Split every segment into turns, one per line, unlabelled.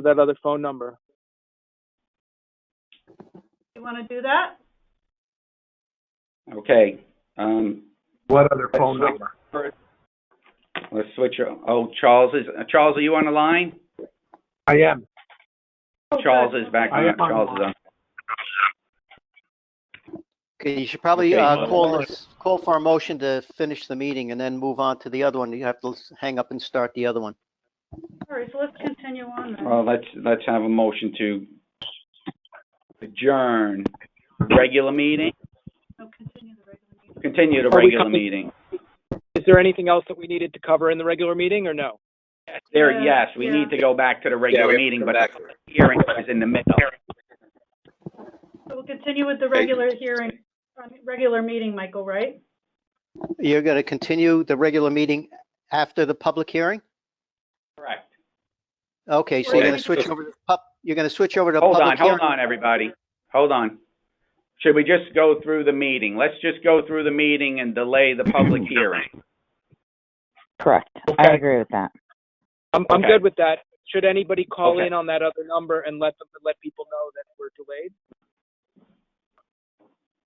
to that other phone number.
You want to do that?
Okay, um,
What other
Let's
phone
switch-
number?
let's switch, oh, Charles is, uh, Charles, are you on the line?
I am.
Oh,
Charles
good.
is back
I
on,
am on the
Charles is on.
Okay, you should probably
Okay,
uh,
well-
call us, call for a motion to finish the meeting and then move on to the other one. You have to hang up and start the other one.
All right, so let's continue on then.
Well, let's, let's have a motion to adjourn regular meeting,
So continue the regular meeting.
continue the
Are we
regular
coming-
meeting.
Is there anything else that we needed to cover in the regular meeting or no?
There,
Yeah,
yes, we
yeah.
need to go back to the regular meeting, but the hearing is in the middle.
So we'll continue with the regular hearing, um, regular meeting, Michael, right?
You're going to continue the regular meeting after the public hearing?
Correct.
Okay, so you're
Okay.
going to switch over to pub, you're going to switch over to
Hold
public
on,
hearing?
hold on, everybody. Hold on. Should we just go through the meeting? Let's just go through the meeting and delay the public hearing.
Correct. I
Okay.
agree with that.
I'm, I'm
Okay.
good with that. Should anybody call
Okay.
in on that other number and let them, let people know that we're delayed?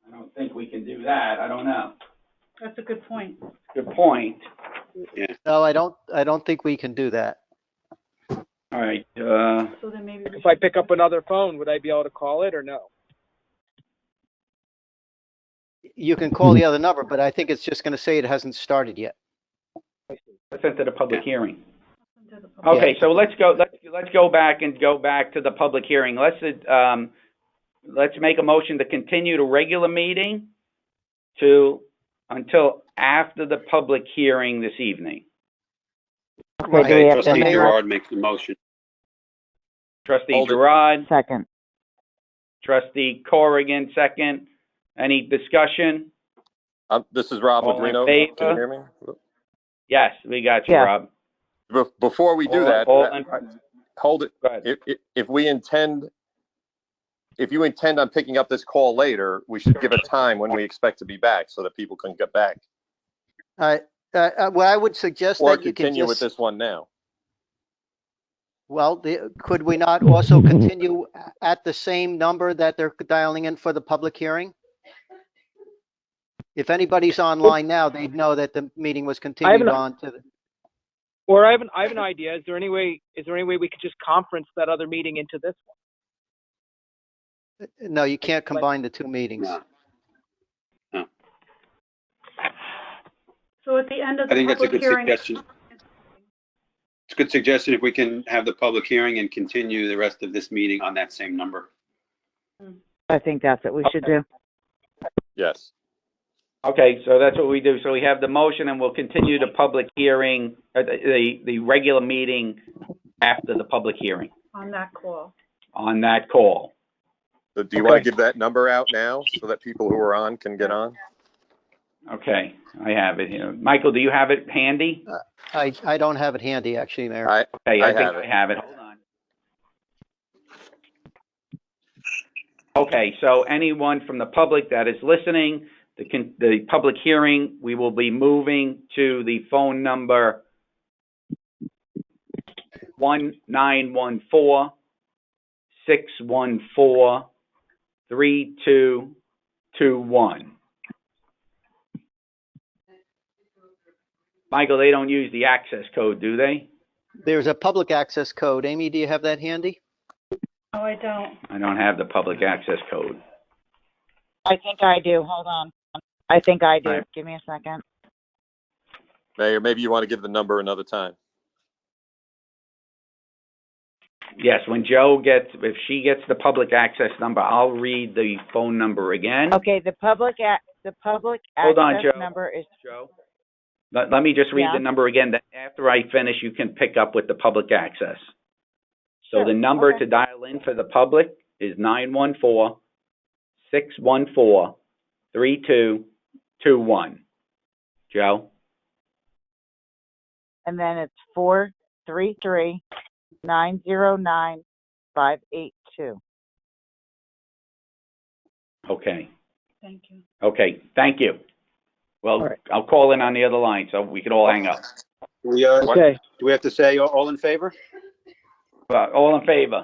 I don't think we can do that. I don't know.
That's a good point.
Good point.
No, I don't, I don't think we can do that.
All right, uh,
So then maybe. we
If I
should-
pick up another phone, would I be able to call it or no?
You can call the other number, but I think it's just going to say it hasn't started yet.
let's enter the public hearing.
Into the public.
Okay, so let's go, let's, let's go back and go back to the public hearing. Let's, um, let's make a motion to continue the regular meeting to, until after the public hearing this evening.
So do we
Okay,
have to
trustee
make
Gerard makes the motion.
Trustee
Hold it.
Gerard?
a second?
Trustee Corrigan, second. Any discussion?
Um, This is Rob
All in
Legrino. Can
favor?
you hear me?
Yes, we got you,
Yeah.
Rob.
Be- Before we do
All-
that,
all
I-
in-
I- hold it.
Go ahead.
If, if- if we intend, if you intend on picking up this call later, we should give a time when we expect to be back so that people can get back.
All right, uh, uh, what I would suggest
Or
that you can
continue with
just,
this one now.
well, the- could we not also continue a- at the same number that they're dialing in for the public hearing? If anybody's online now, they'd know that the meeting was continued
an-
on to the.
Or I have an, I have an idea. Is there any way, is there any way we could just conference that other meeting into this one?
No, you can't combine the two meetings.
So at the end of
I
the
think that's a
public
good
hearing.
suggestion. It's a good suggestion if we can have the public hearing and continue the rest of this meeting on that same number.
I think that's what we should do.
Yes.
Okay, so that's what we do. So we have the motion and we'll continue the public hearing, uh, the, the, the regular meeting after the public hearing
On that call.
on that call.
So Do you want
Okay.
to give that number out now so that people who are on can get on?
Okay, I have it here. Michael, do you have it handy?
I, I don't have it handy, actually, Mayor.
I,
Hey,
I
I think
have
I
it.
have it. Hold on. Okay, so anyone from the public that is listening, the, con- the public hearing, we will be moving to the phone number one nine one four six one four three two two one. Michael, they don't use the access code, do they?
There's a public access code. Amy, do you have that handy?
No, I don't.
I don't have the public access code.
I think I do. Hold on. I think I do.
Alright.
Give me a second.
Mayor, maybe you want to give the number another time.
Yes, when Joe gets, if she gets the public access number, I'll read the phone number again.
Okay, the public ac the public
Hold on,
access
Joe.
number is,
Joe? Let, let me just read
Yeah.
the number again, then after I finish, you can pick up with the public access. So the
Sure,
number
okay.
to dial in for the public is nine one four six one four three two two one. Joe?
and then it's four three three nine zero nine five eight two.
Okay,
Thank you.
okay, thank you. Well,
Alright.
I'll call in on the other line, so we could all hang up.
We, uh,
What?
Okay.
do we have to say all- all in favor?
Well, all in favor?